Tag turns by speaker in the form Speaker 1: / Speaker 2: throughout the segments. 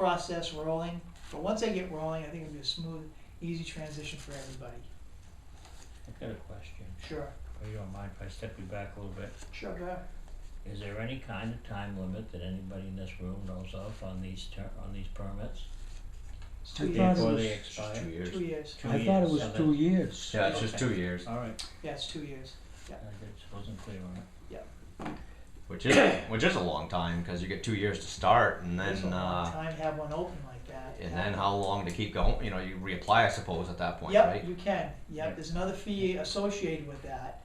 Speaker 1: process rolling, but once I get rolling, I think it'll be a smooth, easy transition for everybody.
Speaker 2: I've got a question,
Speaker 1: Sure,
Speaker 2: if you don't mind if I step you back a little bit.
Speaker 1: sure, go ahead.
Speaker 2: Is there any kind of time limit that anybody in this room knows of on these ter- on these permits?
Speaker 1: It's
Speaker 3: I
Speaker 1: two
Speaker 3: thought
Speaker 1: years,
Speaker 3: it
Speaker 2: Before
Speaker 3: was
Speaker 2: they
Speaker 3: just
Speaker 2: expire?
Speaker 3: two years.
Speaker 1: two years,
Speaker 2: Two
Speaker 3: I thought it
Speaker 2: years,
Speaker 3: was
Speaker 2: so
Speaker 3: two years.
Speaker 2: Yeah,
Speaker 3: Yeah,
Speaker 2: it's just
Speaker 3: it's just
Speaker 2: Okay.
Speaker 3: two years,
Speaker 2: Alright,
Speaker 1: yeah, it's two years,
Speaker 2: I just wasn't clear on it.
Speaker 3: which is which is a long time because you get two years to start, and
Speaker 1: there's a
Speaker 3: then
Speaker 1: long
Speaker 3: uh,
Speaker 1: time to have one open like that.
Speaker 3: and
Speaker 1: yeah.
Speaker 3: then how long to keep going? You know, you reapply, I suppose, at that point, right?
Speaker 1: Yep, you can,
Speaker 2: Yeah.
Speaker 1: yep, there's another fee associated with that,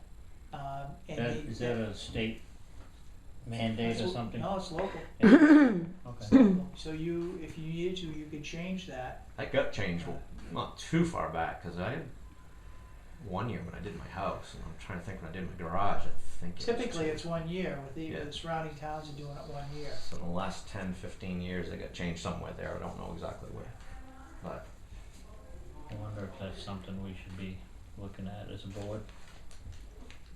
Speaker 1: um, and
Speaker 2: That,
Speaker 1: they-
Speaker 2: is that a state mandate or
Speaker 1: That's lo-
Speaker 2: something?
Speaker 1: No, it's local. It's
Speaker 2: Okay,
Speaker 1: local. So you, if you needed to, you could change that. Uh,
Speaker 3: That gut change was not too far back because I had one year when I did my house, and I'm trying to think when I did my garage. I think it was
Speaker 1: Typically,
Speaker 3: two-
Speaker 1: it's one year, with the,
Speaker 3: Yeah.
Speaker 1: the surrounding towns are doing it one year.
Speaker 3: So in the last 10, 15 years, they got changed somewhere there. I don't know exactly where, but
Speaker 2: I wonder if that's something we should be looking at as a board.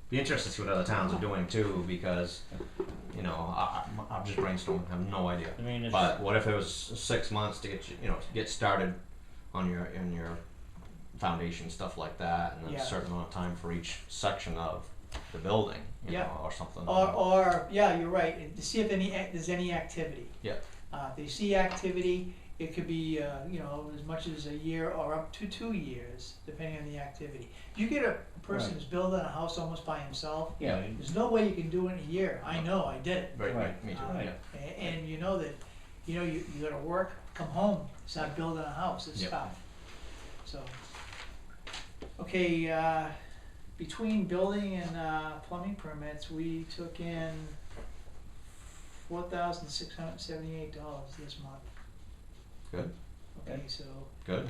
Speaker 3: be interested to see what other towns are doing too because you know I, I- I'm just brainstorming. I have no idea.
Speaker 2: I mean, it's,
Speaker 3: But what if it was six months to get you, you know, to get started on your in your foundation stuff like that, and then
Speaker 1: Yeah.
Speaker 3: a certain amount of time for each section of the building, you
Speaker 1: Yeah.
Speaker 3: know, or something.
Speaker 1: Or, or, yeah, you're right, and to see if any, ac- there's any activity.
Speaker 3: Yeah.
Speaker 1: Uh, if they see activity, it could be, uh, you know, as much as a year or up to two years, depending on the activity. You get a person
Speaker 2: Right.
Speaker 1: who's building a house almost by himself,
Speaker 2: yeah, you-
Speaker 1: there's no way you can do it in a year, I know, I did it.
Speaker 3: Right,
Speaker 2: Right.
Speaker 3: right, me too,
Speaker 1: Um,
Speaker 3: yeah.
Speaker 1: a- And, you know that, you know, you, you gotta work, come home, start building a house, it's
Speaker 3: Yep.
Speaker 1: tough, so. Okay, uh, between building and, uh, plumbing permits, we took in four thousand six hundred and seventy-eight dollars this month.
Speaker 3: Good.
Speaker 1: Okay,
Speaker 2: Okay.
Speaker 1: so,
Speaker 3: Good.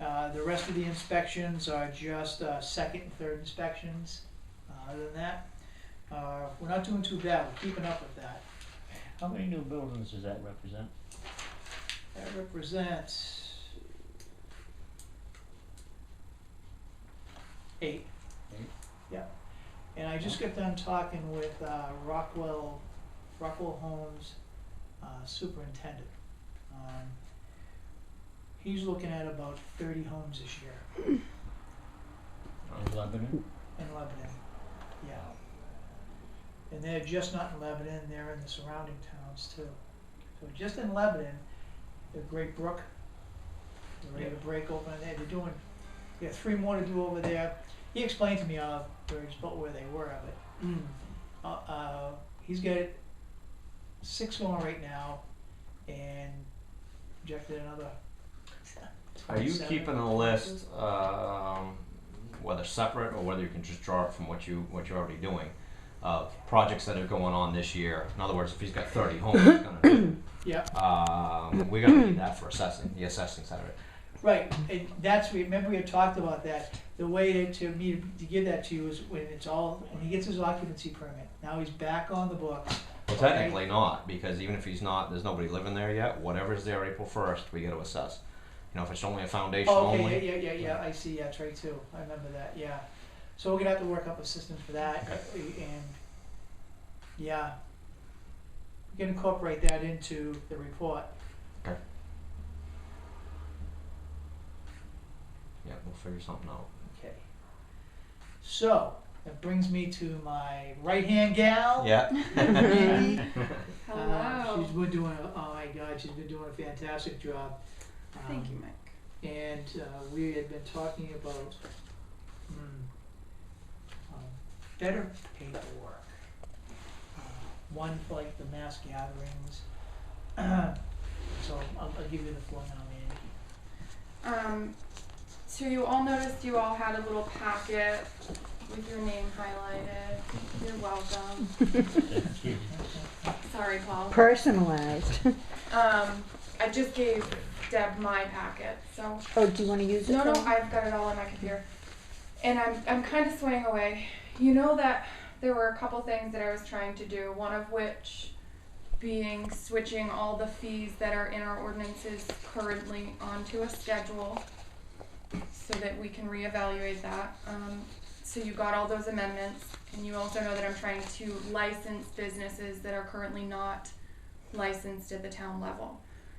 Speaker 1: uh, the rest of the inspections are just, uh, second and third inspections, uh, other than that, uh, we're not doing too bad, we're keeping up with that.
Speaker 2: how many new buildings does that represent?
Speaker 1: That represents eight.
Speaker 2: Eight?
Speaker 1: Yeah, and I just got done talking with uh, Rockwell, Rockwell Homes uh, Superintendent. Um, He's looking at about thirty homes this year
Speaker 2: In Lebanon?
Speaker 1: in Lebanon, yeah. And they're just not in Lebanon, they're in the surrounding towns too. So just in Lebanon, the Great Brook, they're ready to break open there, they're doing, they have three more to do over there. He explained to me all, where he's- about where they were, but, uh, uh, he's got six going right now and projected another
Speaker 3: Are you
Speaker 1: twenty-seven.
Speaker 3: keeping a list, um, whether separate or whether you can just draw it from what you, what you're already doing, of projects that are going on this year? In other words, if he's got thirty homes, he's gonna do,
Speaker 1: Yeah,
Speaker 3: um, we're gonna need that for assessing, the assessing side of it.
Speaker 1: Right, and that's, remember we had talked about that, the way to, to me, to give that to you is when it's all, when he gets his occupancy permit, now he's back on the books.
Speaker 3: Well,
Speaker 1: Okay.
Speaker 3: technically not, because even if he's not, there's nobody living there yet. Whatever's there April first, we got to assess. You know, if it's only a foundation
Speaker 1: Oh,
Speaker 3: only,
Speaker 1: okay, yeah, yeah, yeah, yeah, I see, yeah, Trey too, I remember that, yeah, so we're gonna have to work up a system for that, uh, and, yeah. We can incorporate that into the report,
Speaker 3: yeah, we'll figure something out.
Speaker 1: okay. So, that brings me to my right-hand gal.
Speaker 3: Yeah,
Speaker 1: Mindy. Uh,
Speaker 4: Oh, Hello.
Speaker 1: she's been doing, a- oh my God, she's been doing a fantastic job.
Speaker 4: Thank
Speaker 1: Um,
Speaker 4: you, Mike.
Speaker 1: And uh, we had been talking about mm, um, better paperwork. Uh, One for like the mass gatherings. So I'll, I'll give you the floor now, Mandy.
Speaker 4: Um, so you all noticed you all had a little packet with your name highlighted. You're welcome.
Speaker 2: Thank you.
Speaker 4: Sorry, Paul.
Speaker 5: personalized.
Speaker 4: Um, I just gave Deb my packet, so
Speaker 5: Oh, do you want to use it?
Speaker 4: no, no,
Speaker 5: Dawn?
Speaker 4: I've got it all on my computer, and I'm I'm kind of swaying away. You know that there were a couple things that I was trying to do. One of which being switching all the fees that are in our ordinances currently onto a schedule, so that we can reevaluate that. Um, so you got all those amendments, and you also know that I'm trying to license businesses that are currently not licensed at the town level.